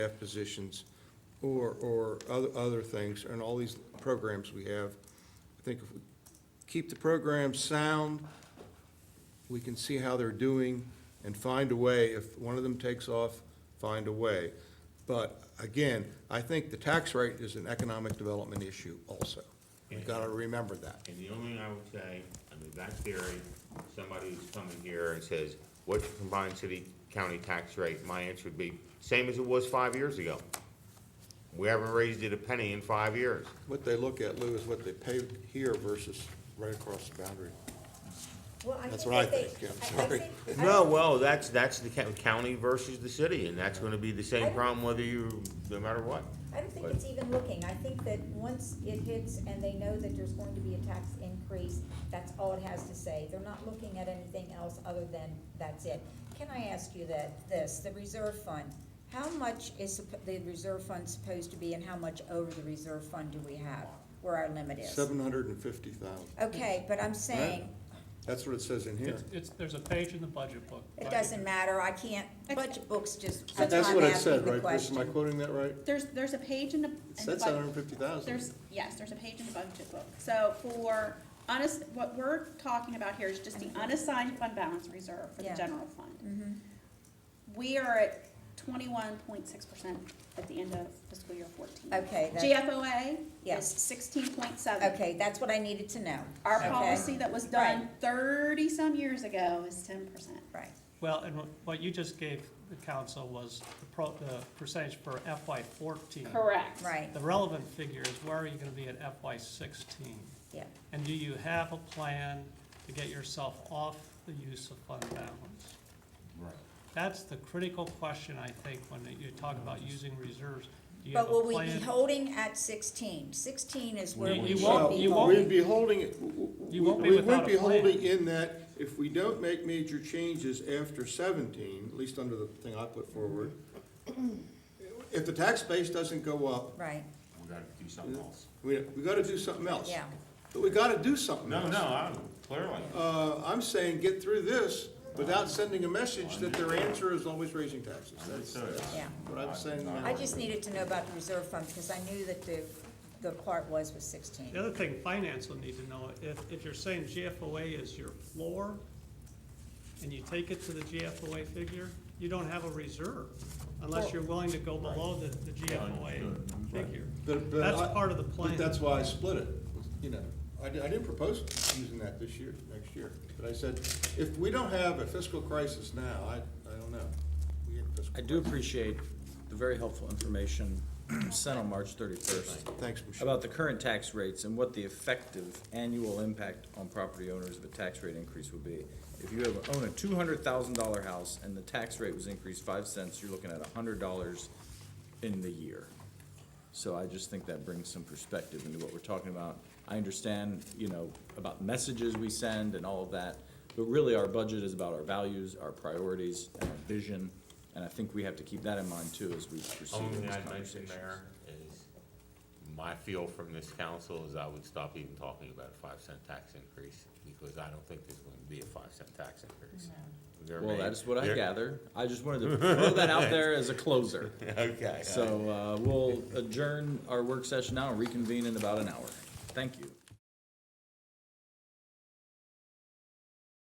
staff positions or, or other, other things, and all these programs we have. I think if we keep the program sound, we can see how they're doing and find a way, if one of them takes off, find a way. But again, I think the tax rate is an economic development issue also. We've got to remember that. And the only thing I would say, I mean, that theory, somebody who's coming here and says, what's your combined city-county tax rate? My answer would be, same as it was five years ago. We haven't raised it a penny in five years. What they look at, Lou, is what they pay here versus right across the boundary. Well, I That's think what that I they- think, yeah, I'm I- I sorry. think- I No, don't- well, that's, that's the coun- county versus the city, and that's gonna be the I same don't- problem whether you, no matter what. I don't think it's even looking, I think that once it hits and they know that there's going to be a tax increase, that's all it has to say, they're not looking at anything else other than that's it. Can I ask you that, this, the reserve fund, how much is supp- the reserve fund supposed to be and how much over the reserve fund do we have, where our limit is? Seven hundred and fifty thousand. Okay, but I'm saying, That's what it says in here. It's, it's, there's a page in the budget book. it doesn't matter, I can't, budget books just, But that's why That's I'm what it asking said, the right, Chris? Am I question. quoting that right? There's, there's a page in the. in It the said bud- seven hundred and fifty There's, thousand. yes, there's a page in the budget book. So for honest, what we're talking about here is just the unassigned fund balance reserve for the Yeah. general fund. Mhm. We are at twenty-one point six percent at the end of fiscal year fourteen. Okay, that's- GFOA is Yes. sixteen point seven. Okay, that's what I needed to know. Our Okay. policy that was done thirty-some years ago is ten percent. Right, Well, and what- what you just gave the council was the pro, the percentage for FY fourteen. Correct. right, The relevant figure is where are you gonna be at FY sixteen? yeah. And do you have a plan to get yourself off the use of fund balance? Right. That's the critical question, I think, when you talk about using reserves. Do you have But a will we be plan? holding at sixteen? Sixteen is where You- we you should be won't- you won't- holding. We'd be holding it, w- w- You won't be we would without be a plan. holding in that if we don't make major changes after seventeen, at least under the thing I put forward, if the tax base doesn't go up, Right, We gotta do something else. we, we gotta do something else. yeah, But we gotta do something No, else. no, I, clearly. Uh, I'm saying get through this without sending a message that their answer is always raising taxes. That's Understood. yeah. what I'm saying now. I just needed to know about the reserve fund because I knew that the, the part was was sixteen. The other thing finance will need to know, if, if you're saying GFOA is your floor, and you take it to the GFOA figure, you don't have a reserve, unless you're willing to go below the, the GFOA figure. But- but That's I- part of the but plan. That's why I split it, you know, I, di- I didn't propose using that this year, next year, but I said, if we don't have a fiscal crisis now, I, I don't know. We had a fiscal I do crisis. appreciate the very helpful information sent on March thirty-first Thanks, Michelle. about the current tax rates and what the effective annual impact on property owners of a tax rate increase would be. If you have, own a two hundred thousand dollar house and the tax rate was increased five cents, you're looking at hundred dollars in the year. So I just think that brings some perspective into what we're talking about. I understand, you know, about messages we send and all of that, but really our budget is about our values, our priorities, and our vision. And I think we have to keep that in mind too as we proceed Only in thing this I'd mention, conversation. Mayor, is my feel from this council is I would stop even talking about a five cent tax increase, because I don't think there's going to be a five cent tax increase. There Well, may- that's what I there- gather. I just wanted to throw that out there as a closer. Okay. So, uh, we'll adjourn our work session now and reconvene in about an hour. Thank you.